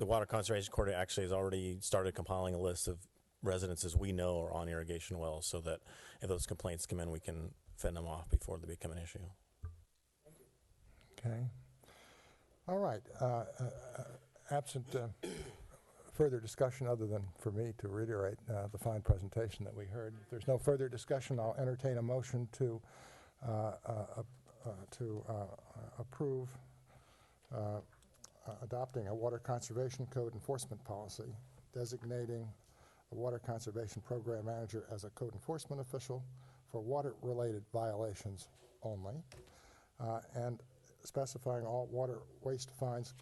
The Water Conservation Court actually has already started compiling a list of residences we know are on irrigation wells so that if those complaints come in, we can fend them off before they become an issue. Okay. All right. uh, uh, uh, Absent uh, further discussion, other than for me to reiterate uh, the fine presentation that we heard, if there's no further discussion, I'll entertain a motion to, uh, uh, uh, uh, to uh, uh, approve uh, uh, adopting a Water Conservation Code enforcement policy designating the Water Conservation Program Manager as a code enforcement official for water-related violations only uh, and specifying all water waste fines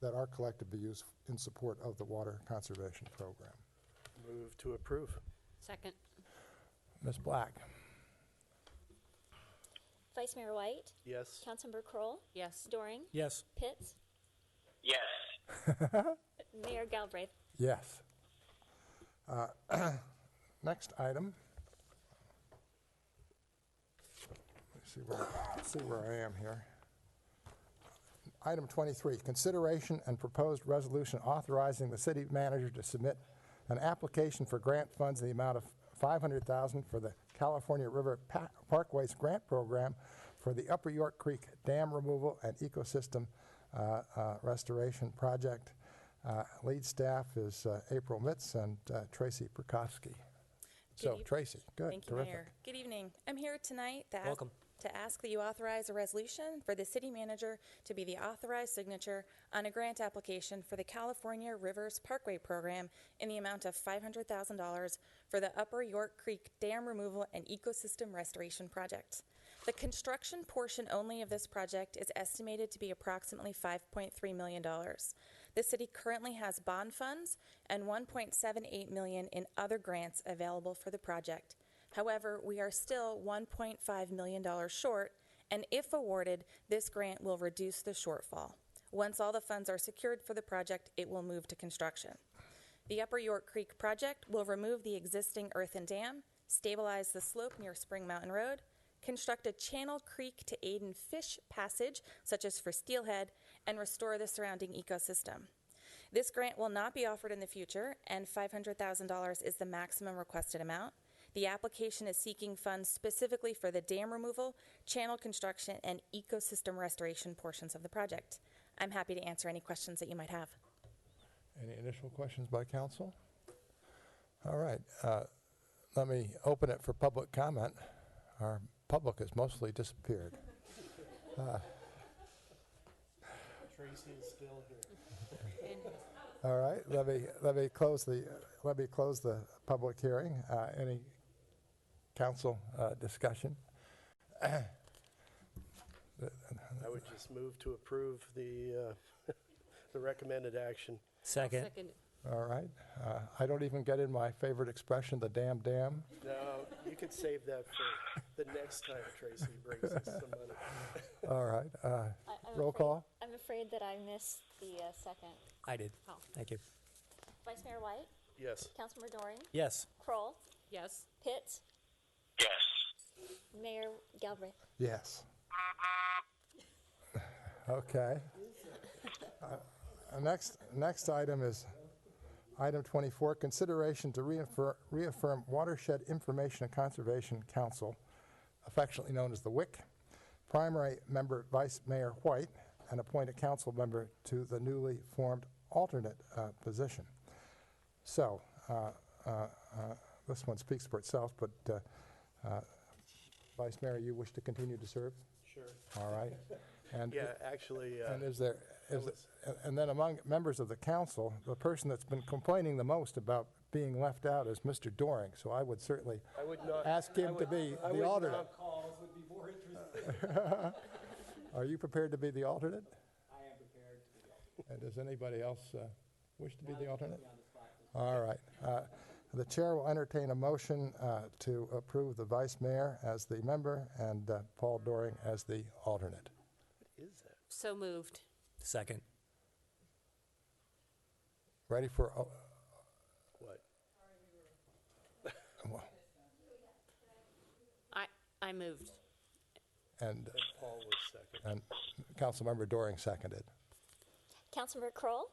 that are collected be used in support of the water conservation program. Move to approve. Second. Ms. Black? Vice Mayor White, Yes. Councilmember Kroll, Yes. Doring, Yes. Pitts, Yes. Mayor Galbraith. Yes. Uh, Next item. Let's see where, let's see where I am here. Item 23, consideration and proposed resolution authorizing the city manager to submit an application for grant funds in the amount of 500000 for the California River Pa- Parkways Grant Program for the Upper York Creek Dam Removal and Ecosystem uh, uh, Restoration Project. Uh, Lead staff is uh, April Mitz and uh, Tracy Prokofsky. So eve- Tracy, good, Thank you, terrific. Mayor. Good evening. I'm here tonight to ask, to ask that you authorize a resolution for the city manager to be the authorized signature on a grant application for the California Rivers Parkway Program in the amount of $500,000 for the Upper York Creek Dam Removal and Ecosystem Restoration Project. The construction portion only of this project is estimated to be approximately $5.3 million. The city currently has bond funds and $1.78 million in other grants available for the project. However, we are still $1.5 million short, and if awarded, this grant will reduce the shortfall. Once all the funds are secured for the project, it will move to construction. The Upper York Creek project will remove the existing earthen dam, stabilize the slope near Spring Mountain Road, construct a channel creek to aid in fish passage, such as for steelhead, and restore the surrounding ecosystem. This grant will not be offered in the future, and $500,000 is the maximum requested amount. The application is seeking funds specifically for the dam removal, channel construction, and ecosystem restoration portions of the project. I'm happy to answer any questions that you might have. Any initial questions by council? All right, uh, let me open it for public comment. Our public has mostly disappeared. Tracy is still here. All right, let me, let me close the, let me close the public hearing. Uh, Any council uh, discussion? I would just move to approve the, uh, the recommended action. Second. Second. All right, uh, I don't even get in my favorite expression, the damn dam. No, you could save that for the next time Tracy brings us some money. All right, uh, I- I'm roll afraid- call? I'm afraid that I missed the uh, second. I did. Oh. Thank you. Vice Mayor White, Yes. Councilmember Doring, Yes. Kroll, Yes. Pitts, Yes. Mayor Galbraith. Yes. Okay. Uh, Next, next item is item 24, consideration to reaffir- reaffirm Watershed Information and Conservation Council, affectionately known as the WIC, primary member Vice Mayor White, and appoint a council member to the newly formed alternate uh, position. So, uh, uh, uh, this one speaks for itself, but uh, uh, Vice Mayor, you wish to continue to serve? Sure. All right. And, Yeah, actually, uh, and is there, is, and- and then among members of the council, the person that's been complaining the most about being left out is Mr. Doring, so I would certainly I would not. ask I him to would- be I the would alternate. not- Are you prepared to be the alternate? I am prepared to be the alternate. And does anybody else uh, wish to be the alternate? All right. Uh, The chair will entertain a motion uh, to approve the vice mayor as the member and uh, Paul Doring as the alternate. Is that? So moved. Second. Ready for, uh, a- What? I, I moved. and, And Paul was second. and Councilmember Doring seconded. Councilmember Kroll,